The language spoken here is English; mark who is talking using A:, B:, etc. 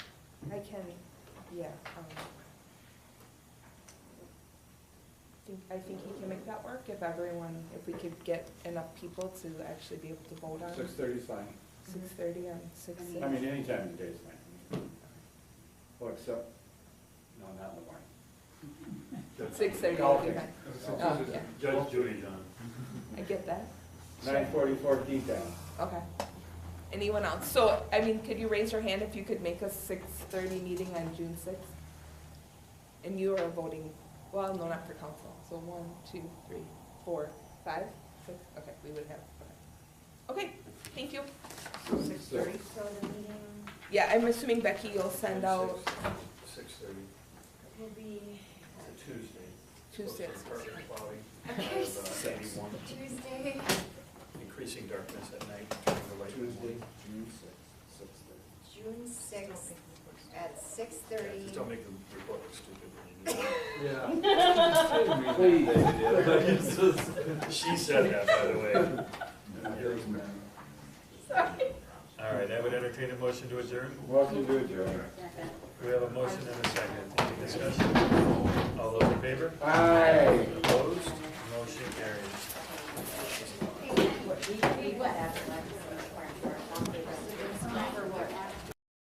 A: can, yeah, um, I think, I think he can make that work if everyone, if we could get enough people to actually be able to vote on
B: Six thirty is fine.
A: six thirty on six.
B: I mean, any time of the day is fine. Well, except, no, not in the morning.
A: Six thirty,
B: Golfing.
A: Oh, yeah.
C: Judge Judy John.
A: I get that,
B: Nine forty, fourteen then.
A: okay. Anyone else? So, I mean, could you raise your hand if you could make a six thirty meeting on June sixth? And you are voting, well, no, not for council, so one, two, three, four, five, six, okay, we would have, okay. Okay, thank you.
B: Six thirty.
D: So the meeting
A: Yeah, I'm assuming Becky, you'll send out
C: Six thirty,
D: will be
C: it's a Tuesday.
A: Tuesday.
C: Perfect plowing.
D: Okay.
C: Uh, Eighty-one,
D: Tuesday.
C: increasing darkness at night, turning the light.
B: Tuesday, June sixth, six thirty.
D: June sixth at six
C: Yeah,
D: thirty.
C: Just don't make them report look stupid when you do it. She said that, by the way. All right, I would entertain a motion to adjourn.
B: Welcome to adjourn.
C: We have a motion and a second. Any discussion? All those in favor?
B: Aye.
C: Opposed?